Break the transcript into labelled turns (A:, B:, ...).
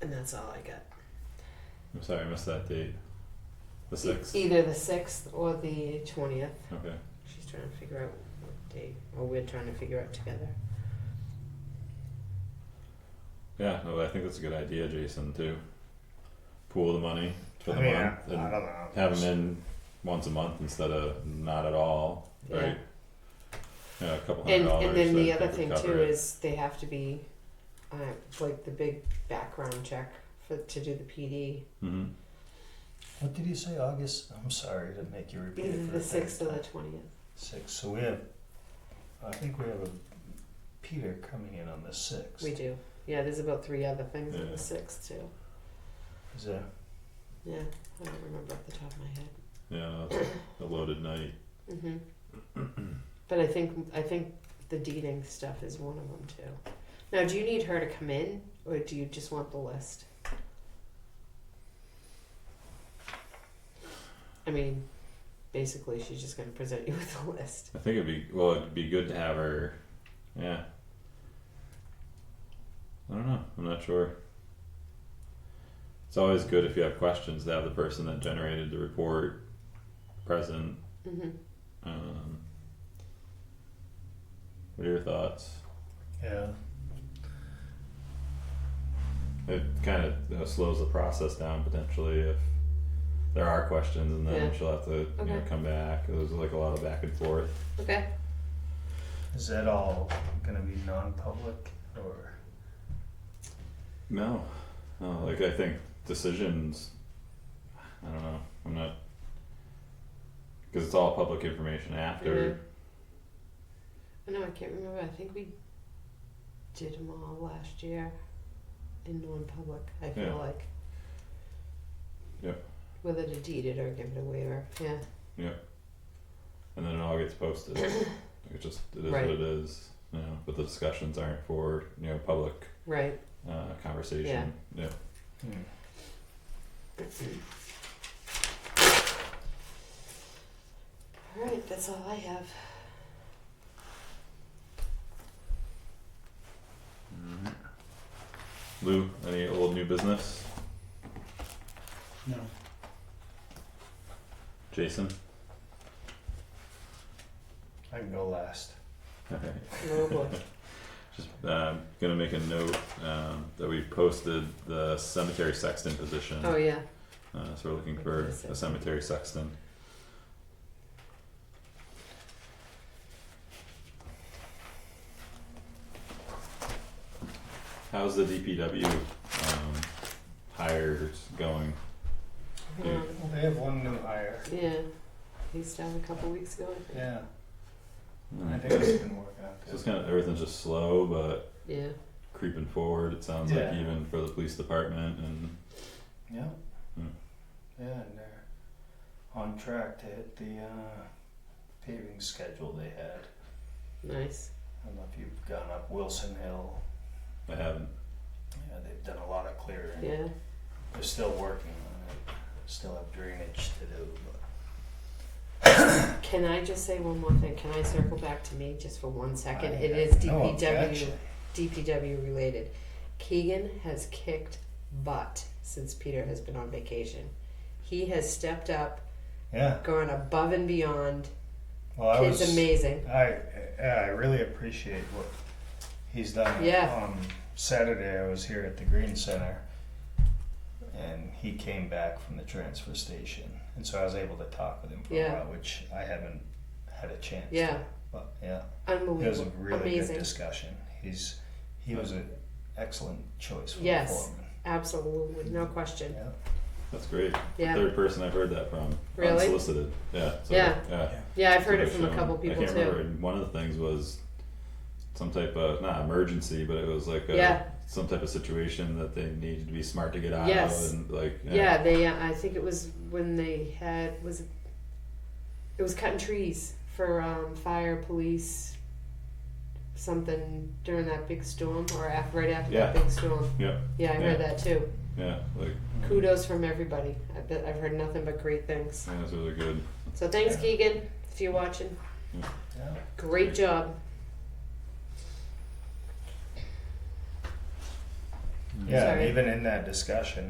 A: That's all I got.
B: I'm sorry, I missed that date. The sixth.
A: E-, Either the sixth or the twentieth.
B: Okay.
A: She's trying to figure out what date, or we're trying to figure out together.
B: Yeah, no, I think that's a good idea, Jason. Too. Pool the money for the
C: I mean, I,
B: month
C: I don't
B: and
C: know.
B: have them in once a month instead of not at all.
A: Yeah.
B: Right. Yeah, a couple hundred
A: And
B: dollars.
A: and then the
B: I
A: other
B: think
A: thing
B: would
A: too
B: cover it.
A: is they have to be, uh, like the big background check for to do the PD.
B: Mhm.
C: What did you say, August? I'm sorry to make you repeat
A: Either
C: it. for
A: the
C: a third
A: sixth or the
C: time.
A: twentieth.
C: Six, so we have, I think we have a Peter coming in on the sixth.
A: We do. Yeah, there's about three other things on
B: Yeah.
A: the sixth too.
C: Is that,
A: Yeah, I don't remember off the top of my head.
B: Yeah, no, it's a loaded night.
A: Mm-hmm. but I think I think the deeding stuff is one of them too. Now, do you need her to come in, or do you just want the list? I mean, basically, she's just going to present you with the list.
B: I think it'd be well. It'd be good to have her. Yeah. I don't know. I'm not sure. It's always good if you have questions to have the person that generated the report present.
A: Mm-hmm.
B: Um, what are your thoughts?
C: yeah,
B: It kind of you know, slows the process down potentially if there are questions, and then
A: Yeah.
B: she'll have to you know
A: Okay.
B: come back. There's like a lot of back and forth.
A: Okay.
C: is that all gonna be non-public or?
B: No, no. Like I think decisions. I don't know. I'm not because it's all public information after.
A: I know I can't remember. I think we did them all last year in non-public. I feel
B: Yeah.
A: like.
B: Yep.
A: Whether to deed it or give it a waiver, yeah.
B: And then it all gets posted. it just it is
A: Right.
B: what it is. You know, but the discussions aren't for you know public
A: Right.
B: uh, conversation. Yeah.
C: Hmm.
A: All right. That's all I have.
B: Alright. Lou, any old new business?
D: No.
B: Jason.
C: I can go last.
B: Okay.
A: Oh boy.
B: Just um, gonna make a note um, that we posted the cemetery sexton position.
A: Oh yeah.
B: Uh, so we're looking for a cemetery sexton. How's the DPW um, hires going?
A: Yeah.
C: Well, they have one new hire.
A: yeah. He's down a couple weeks ago. I think.
C: Yeah, I
B: Mm.
C: think it's been working out
B: So it's
C: good.
B: kind of everything's just slow, but
A: Yeah.
B: creeping forward. It sounds like
C: Yeah.
B: even for the police department and
C: Yeah.
B: Hmm.
C: Yeah, and they're on track to hit the, uh, paving schedule they had.
A: Nice.
C: I don't know if you've gone up Wilson Hill.
B: I haven't.
C: Yeah, they've done a lot of clearing.
A: Yeah.
C: They're still working on it. Still have drainage to do, but
A: Can I just say one more thing? Can I circle back to me just for one second?
C: I
A: It
C: have
A: is
C: no
A: DPW.
C: objection.
A: DPW related. Keegan has kicked butt since Peter has been on vacation. He has stepped up,
C: Yeah.
A: gone above and beyond.
C: Well, I
A: Kid's
C: was.
A: amazing.
C: I yeah, I really appreciate what he's done.
A: Yeah.
C: On Saturday, I was here at the Green Center, and he came back from the transfer station, and so I was able to talk with him for
A: Yeah.
C: a while, which I haven't had a chance.
A: Yeah.
C: To. But yeah, it was a
A: Unbelievable.
C: really
A: Amazing.
C: good discussion. He's he was an excellent choice for
A: Yes.
C: the foreman.
A: Absolutely. No question.
C: Yeah.
B: That's great.
A: Yeah.
B: Third person I've heard that from.
A: Really?
B: Unsolicited. Yeah. So,
A: Yeah.
B: Yeah.
A: Yeah, I've heard it
B: I've
A: from a
B: shown-
A: couple
B: I
A: people
B: can't remember.
A: too.
B: and One of the things was some type of not emergency, but it was like a,
A: Yeah.
B: some type of situation that they needed to be smart to get out
A: Yes.
B: of, and like yeah,
A: Yeah, they, uh, I think it was when they had, was it, it was cutting trees for um, fire, police, something during that big storm or af right after that
B: Yeah.
A: big storm.
B: Yeah.
A: Yeah, I
B: Yeah.
A: heard that too.
B: yeah, like
A: kudos from everybody. I've, been, I've heard nothing but great things.
B: yeah, those are good.
A: So thanks,
C: Yeah.
A: Keegan, if you're watching.
C: Yeah.
A: Great job.
C: Yeah, and
A: Sorry.
C: even in that discussion,